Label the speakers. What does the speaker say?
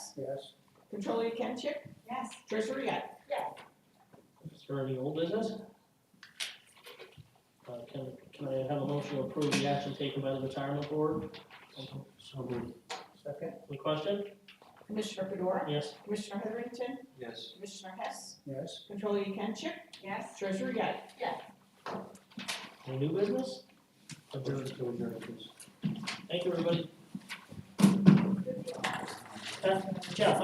Speaker 1: Yes.
Speaker 2: Yes.
Speaker 1: Controller Kenchik,
Speaker 3: Yes.
Speaker 1: Treasurer Yap.
Speaker 2: Is there any old business? Uh, can, can I have a motion to approve the action taken by the retirement board?
Speaker 4: So moved.
Speaker 2: Second. The question?
Speaker 1: Commissioner Fedora,
Speaker 2: Yes.
Speaker 1: Commissioner Heatherington,
Speaker 4: Yes.
Speaker 1: Commissioner Hess,
Speaker 2: Yes.
Speaker 1: Controller Kenchik,
Speaker 3: Yes.
Speaker 1: Treasurer Yap.
Speaker 2: Any new business?
Speaker 4: Adjourn to adjourn, please.
Speaker 2: Thank you, everybody. Uh, Jeff,